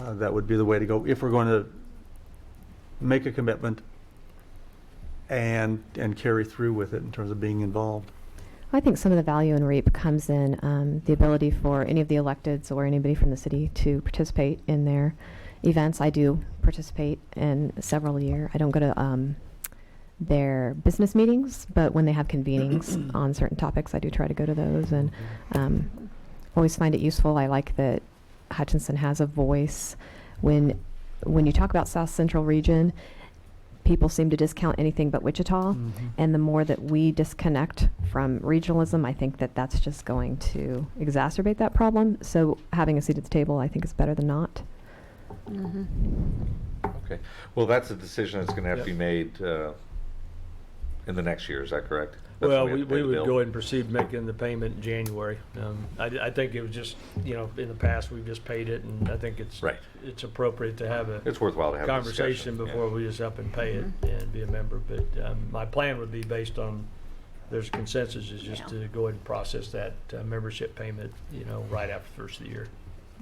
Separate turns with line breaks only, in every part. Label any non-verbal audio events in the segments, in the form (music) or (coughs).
uh, that would be the way to go if we're going to make a commitment and, and carry through with it in terms of being involved.
I think some of the value in REAP comes in um, the ability for any of the electeds or anybody from the city to participate in their events. I do participate in several a year. I don't go to um, their business meetings, but when they have convenings on certain topics, I do try to go to those and um, always find it useful. I like that Hutchinson has a voice. When when you talk about South Central region, people seem to discount anything but Wichita.
Mhm.
And the more that we disconnect from regionalism, I think that that's just going to exacerbate that problem. So having a seat at the table, I think, is better than not.
Okay, well, that's a decision that's gonna have to be
Yep.
made, uh, in the next year, is that correct? That's
Well,
when
we,
have to pay
we
the
would
bill?
go ahead and proceed making the payment in January. Um, I, I think it was just, you know, in the past, we've just paid it, and I think it's,
Right.
it's appropriate to have a
It's worthwhile to have a discussion.
conversation before we just up and pay it and be a member. But, um, my plan would be based on, there's consensus, is just to go ahead and process that uh, membership payment, you know, right after the first of the year,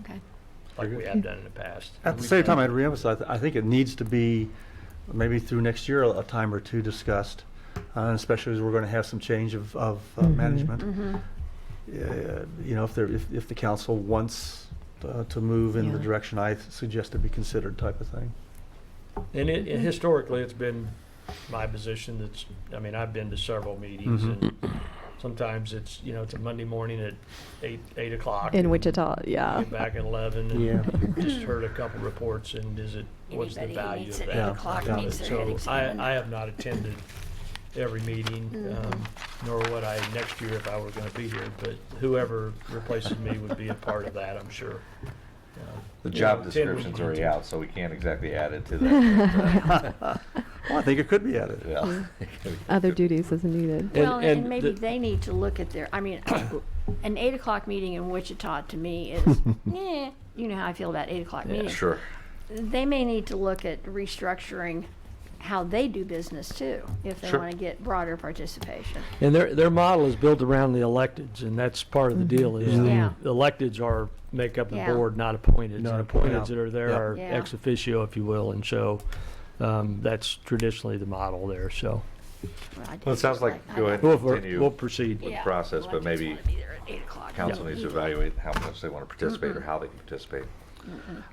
Okay.
like we have done in the past.
At the
We've
same
done-
time, I'd reemphasize, I think it needs to be, maybe through next year, a time or two discussed, uh, especially as we're going to have some change of, of uh,
Mhm.
management.
Mm-hmm.
Uh, You know, if there, if, if the council wants uh, to move in the
Yeah.
direction I suggest to be considered type of thing.
And it, and historically, it's been my position that's, I mean, I've been to several meetings and sometimes it's, you know, it's a Monday morning at eight, eight o'clock.
In
and
Wichita, yeah.
Get back at eleven
Yeah.
and just heard a couple reports and is it, what's the
Anybody who
value
meets
of
at
that?
Yeah,
eight o'clock
got
needs
it.
their head
So I, I
examined.
have not attended every meeting,
Mm-hmm.
um, nor would I next year if I were gonna be here, but whoever replaces me would be a part of that, I'm sure. Um,
The
you
job
know, ten would
description's
be-
already out, so we can't exactly add it to that.
Well, I think it could be added.
Well, (laughs)
Other duties as needed.
Well,
and
and maybe
the-
they need to look at their,
(coughs)
I mean, an eight o'clock meeting in Wichita to
(laughs)
me is, eh, you know how I feel about eight o'clock meetings.
Sure,
They may need to look at restructuring how they do business too, if they
Sure.
want to get broader participation.
And their, their model is built around the electeds, and that's part of the deal, is
Yeah.
Yeah.
the electeds are, make up the
Yeah.
board, not appointed.
Not
And
appointed.
appointeds that are there
Yeah.
are
Yeah.
ex officio, if you will, and so, um, that's traditionally the model there, so.
Well, I
well, it
just
sounds
feel
like,
I
go
know.
ahead
We'll,
and
we'll
continue.
proceed.
with
Yeah.
process,
Well, I
but
just
maybe
wanna be there at eight o'clock.
Council needs to evaluate how much they want to participate or how they can participate.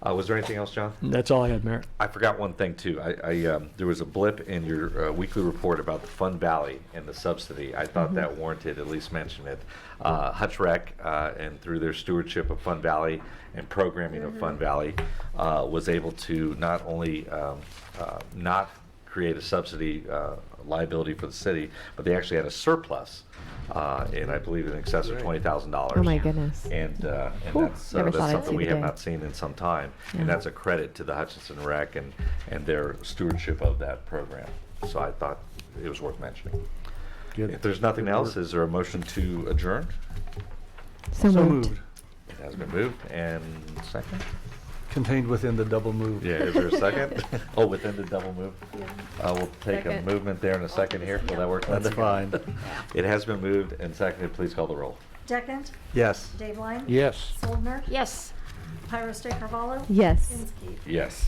Uh, was there anything else, John?
That's all I had, Mayor.
I forgot one thing too. I, I um, there was a blip in your uh, weekly report about the Fund Valley and the subsidy. I thought that warranted at least mention it. Uh, Hutch Rec, uh, and through their stewardship of Fund Valley and programming of Fund Valley, uh, was able to not only um, uh, not create a subsidy uh, liability for the city, but they actually had a surplus, uh, in I believe in excess of twenty thousand dollars.
Oh, my goodness.
And, uh, and
Whew,
that's, uh,
never
that's
thought I'd
something
see
we
the
have
day.
not seen in some time.
Yeah.
And that's a credit to the Hutchinson Rec and, and their stewardship of that program. So I thought it was worth mentioning. If there's nothing else, is there a motion to adjourn?
So
So
moved.
moved,
It has been moved and second?
contained within the double move.
Yeah, is there a
(laughs)
second? Oh, within the double move? Uh, we'll take a
Second.
movement there in a second here. Will that work, Linda?
That's fine.
(laughs) It has been moved and seconded. Please call the roll.
Deckent,
Yes.
Dave Line,
Yes.
Soldner,
Yes.
Pyro State Carvallo,
Yes.
Inskeep.
Yes.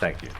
Thank you.